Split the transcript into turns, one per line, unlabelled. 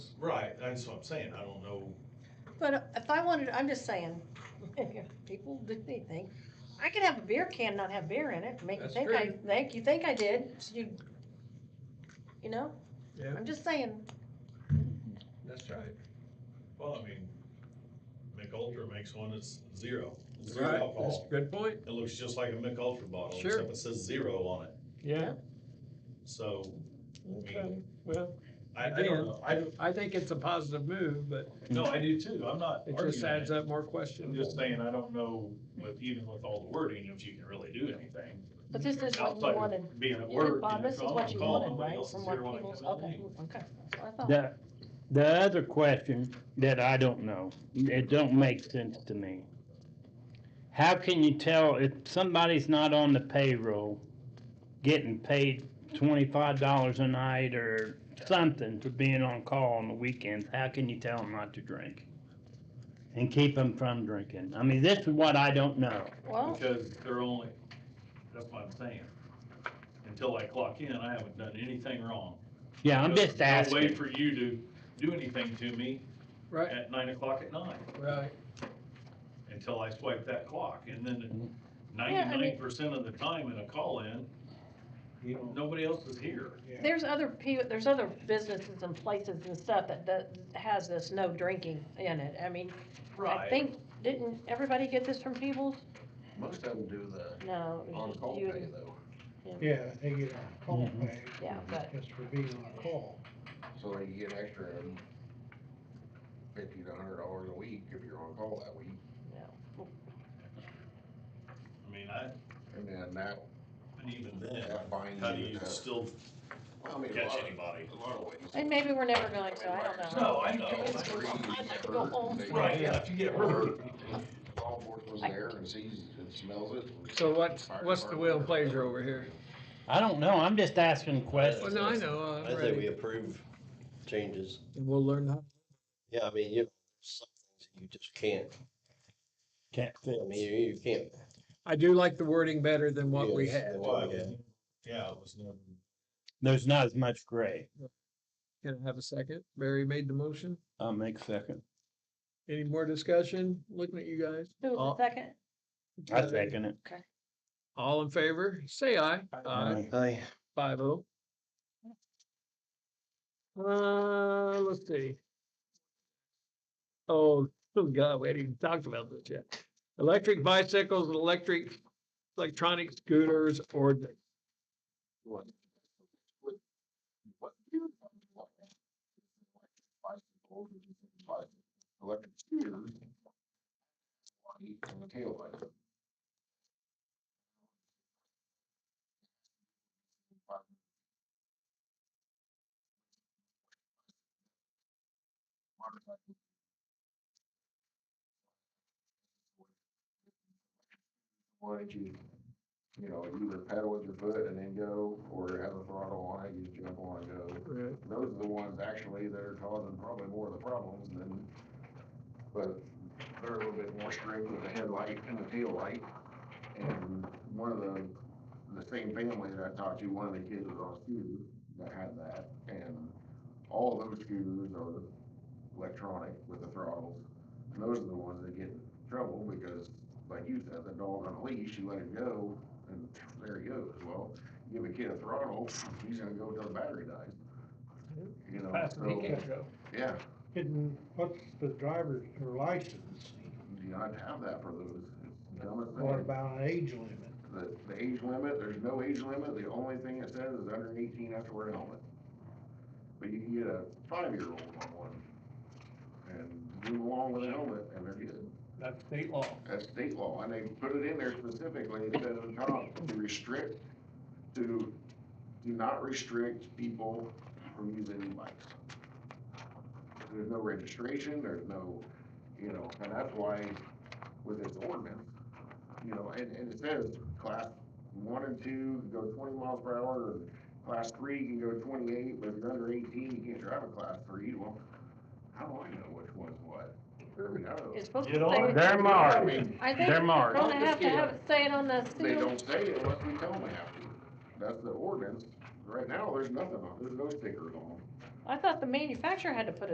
Right, that's what I'm saying, I don't know,
But uh, if I wanted, I'm just saying, if people did anything, I could have a beer can, and not have beer in it, make you
That's
think I,
true.
think, you think I did, so you, you know?
Yeah.
I'm just saying,
That's right.
well, I mean, McUltra makes one that's zero, zero
Right, that's
alcohol.
a good point.
It looks just like a McUltra bottle,
Sure.
except it says zero on it,
Yeah,
so,
okay, well,
I, I don't
Again.
know, I, don't-
I think it's a positive move, but
no, I do too, I'm not
it just
arguing
adds
it.
up more
I'm just
questions.
saying, I don't know, with, even with all the wording, if you can really do anything.
but this is what
Outside
you
of
wanted,
Being at
you know,
work.
Bob,
and if
this is
I'm
what you
calling,
wanted,
nobody
right,
else
from
is
what
here when I
people,
come in.
okay, okay, that's what I thought.
The, the other question that I don't know, it don't make sense to me. How can you tell if somebody's not on the payroll, getting paid twenty-five dollars a night or something for being on call on the weekends, how can you tell them not to drink? And keep them from drinking? I mean, this is what I don't know.
Well,
Because they're only, that's what I'm saying. Until I clock in, I haven't done anything wrong.
Yeah, I'm
There's
just
No way
asking.
for you to do anything to me
Right,
at nine o'clock at night,
right,
until I swipe that clock, and then
Mm-hmm.
Yeah, I
ninety-nine
mean-
percent of the time in a call-in,
You don't,
nobody else is here.
there's other people, there's other businesses and places and stuff that, that has this no drinking in it, I mean, I think, didn't everybody get this from Peoples?
Most of them do the
No. it was just
on-call
you and-
pay though,
yeah, they get on call
Mhm.
pay
Yeah, but
just for being on call.
so they get extra um, fifty to hundred dollars a week if you're on call that week.
I mean, I,
And then that,
and even then,
that binds
how do
you
you
to.
still
Well, I mean, a
catch
lot of-
anybody?
A lot of ways.
And maybe we're never going to, I don't know.
No, I know.
I'd like to go home.
Right, yeah, if you get hurt,
Law enforcement's there and sees and smells it.
so what's, what's the will and pleasure over here?
I don't know, I'm just asking
Well,
questions.
no, I know, uh,
I
I'm
say
ready.
we approve changes.
And we'll learn how.
Yeah, I mean, you, some things you just can't,
Can't fit.
I mean, you, you can't.
I do like the wording better than what we
Yes,
had,
that's what we had.
Yeah, it was never.
There's not as much gray.
can I have a second? Barry made the motion,
I'll make second.
any more discussion, looking at you guys?
Who was the second?
I second it.
All in favor, say aye.
Aye.
Five oh. Uh, let's see. Oh, oh God, we hadn't even talked about this yet. Electric bicycles, and electric, electronic scooters or.
What? What? Electric scooter. Heat on the taillight. Why don't you you know, either pedal with your foot and then go, or have a throttle on it, you jump on and go.
Right.
Those are the ones actually that are causing probably more of the problems than, but they're a little bit more strict with the headlight and the tail light. And one of the, the same family that I talked to, one of the kids was on a scooter that had that, and all those scooters are electronic with the throttles. And those are the ones that get in trouble because, like you said, the dog on a leash, you let it go, and there he goes. Well, give a kid a throttle, he's gonna go till the battery dies. You know,
oh,
so, yeah,
Didn't, what's the driver's or license?
you do not have that for those. It's the dumbest
What
thing.
about an age limit?
The, the age limit, there's no age limit, the only thing it says is under eighteen have to wear a helmet. But you can get a five-year-old on one, and move along with a helmet, and they're good.
That's state law.
That's state law, and they put it in there specifically, it says on top, to restrict, to, do not restrict people from using e-bikes. There's no registration, there's no, you know, and that's why with this ordinance, you know, and, and it says class one and two can go twenty miles per hour, and class three can go twenty-eight, but if you're under eighteen, you can't drive a class three, well, how do I know which one's what? Kirby knows.
It's supposed to
You don't
say,
want
They're
I
marked.
mean,
I think
They're
they're
marked.
gonna have to have it say it on the
They
seal.
don't say it unless we tell them they have to. That's the ordinance. Right now, there's nothing on, there's no stickers on them.
I thought the manufacturer had to put it.